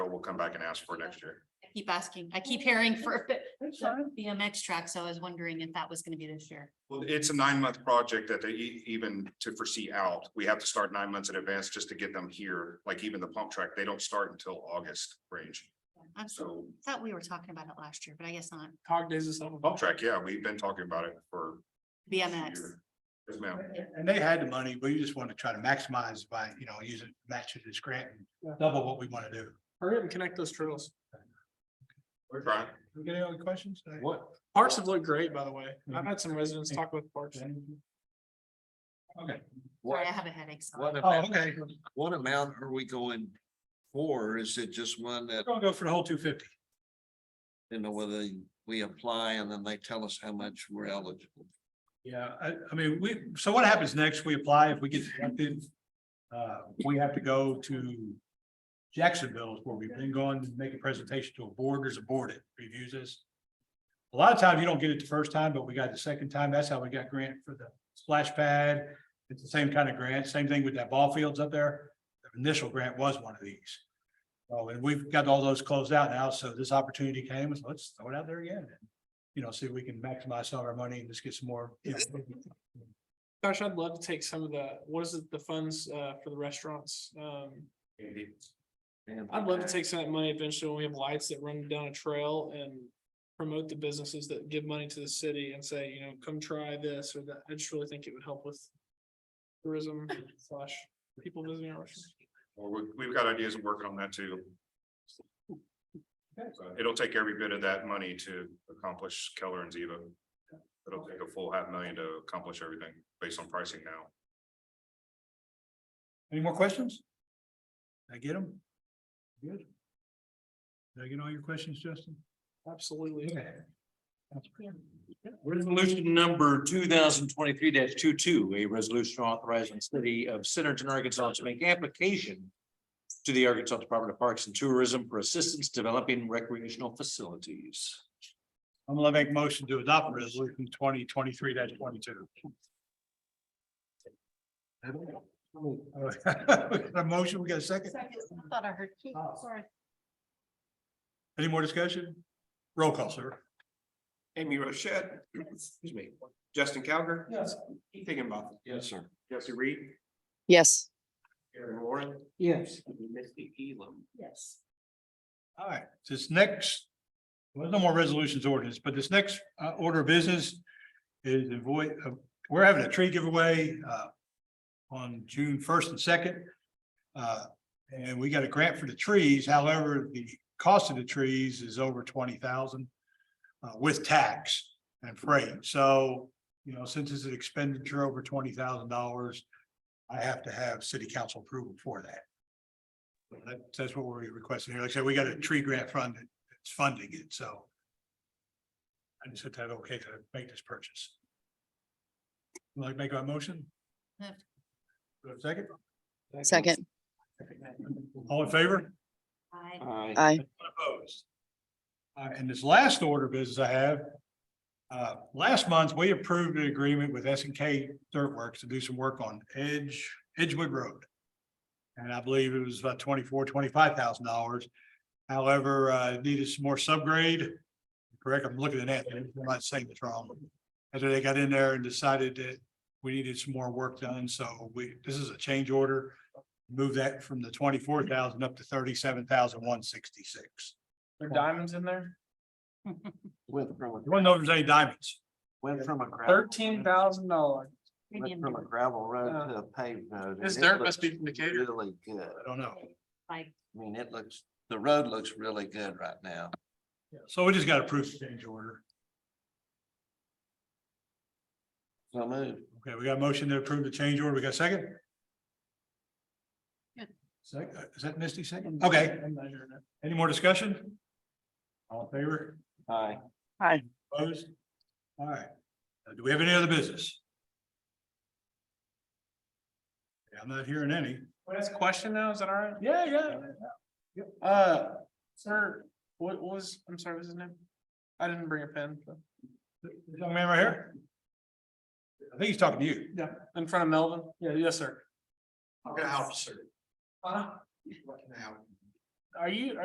we'll come back and ask for next year. I Keep asking. I keep hearing for the That's BMX track, so I was wondering if that was gonna be this year. Well, it's a nine month project that they e- even to foresee out. We have to start nine months in advance just to get them here. Like even the pump track, they don't start until August range. I So thought we were talking about it last year, but I guess not. Cog days or something. pump track, yeah, we've been talking about it for. a BMX. year. Yes, ma'am. And they had the money, we just want to try to maximize by, you know, using matches this grant Yeah. and double what we want to do. Hurry up and connect those trails. Brian? We got any other questions? What? Parks have looked great, by the way. I've had some residents talk about parks. Okay. Sorry, I have a headache. so- What Oh, amount, okay, what amount are we going for? Is it just one that, we're gonna go for the whole two fifty. you know, whether we apply and then they tell us how much we're eligible? Yeah, I, I mean, we, so what happens next? We apply, if we get selected, uh, we have to go to Jacksonville is where we've been going to make a presentation to a board. There's a board that reviews this. A lot of times you don't get it the first time, but we got it the second time. That's how we got grant for the splash pad. It's the same kind of grant, same thing with that ball fields up there. The Initial grant was one of these. Oh, and we've got all those closed out now, so this opportunity came, so let's throw it out there again you know, see if we can maximize some of our money and just get some more. you know, Gosh, I'd love to take some of the, what is it, the funds uh for the restaurants? Um, I'd love to take some of that money eventually when we have lights that run down a trail and. Promote the businesses that give money to the city and say, you know, come try this or that. I just really think it would help with. Tourism slash people visiting our restaurants. Well, we- we've got ideas of working on that too. So It'll take every bit of that money to accomplish Keller and Ziva. It'll take a full half million to accomplish everything based on pricing now. Any more questions? Did I get them? Good. Did I get all your questions, Justin? Absolutely. Okay. Resolution number two thousand twenty-three 22 a resolution authorizing the city of Centerton, Arkansas to make application to the Arkansas Department of Parks and Tourism for assistance developing recreational facilities. I'm gonna make a motion to adopt resolution twenty twenty-three twenty-two. A motion, we got a second? I Thought I heard. Keith, Oh. sorry. Any more discussion? Roll call, sir. Amy Rochette, excuse me, Justin Calgar. Yes. Keith Higginbotham, Yes, sir. Jesse Reed, Yes. Aaron Warren, Yes. Misty Elam. Yes. All right, this next, well, no more resolutions ordinance, but this next uh order of business is the void, uh, we're having a tree giveaway uh on June first and second. Uh, and we got a grant for the trees, however, the cost of the trees is over twenty thousand uh with tax and freight, so, you know, since it's an expenditure over twenty thousand dollars, I have to have city council approval for that. That, that's what we're requesting here. Like I said, we got a tree grant fund that's funding it, so. I just said that, okay, to make this purchase. Like make a motion? Do Yeah. I have a Second, Second. all in favor? I Aye. Aye. Opposed. Uh, and this last order of business I have. Uh, last month, we approved an agreement with S and K Dirt Works to do some work on Edge, Edgewood Road. And I believe it was about twenty-four, twenty-five thousand dollars. However, uh, it needed some more subgrade. Correct, I'm looking at Anthony, I'm not saying this wrong. After they got in there and decided that we needed some more work done, so we, this is a change order. Move that from the twenty-four thousand up to thirty-seven thousand one sixty-six. There are diamonds in there. Went from, a- You wanna know if there's any diamonds? went from a gravel. Thirteen thousand dollars. premium Went from a gravel road to a paved road. and This it dirt must looks be from Decatur. Really good. I I don't know. Like, mean, it looks, the road looks really good right now. So we just got to approve the change order. So move. Okay, we got a motion to approve the change order. We got a second? Good. Second, is that Misty Mm-hmm. second? Okay, I'm measuring it. any more discussion? All in favor? Aye. Aye. Opposed? All right. Uh, Do we have any other business? Yeah, I'm not hearing any. Can I ask a question now? Is that all right? Yeah, yeah. Uh, sir, what what was, I'm sorry, what's his name? I didn't bring a pen. so- This Young man right here? I think he's talking to you. Yeah, in front of Melvin. Yeah, yes, sir. I'll get out, sir. Huh? What can I help? Are you,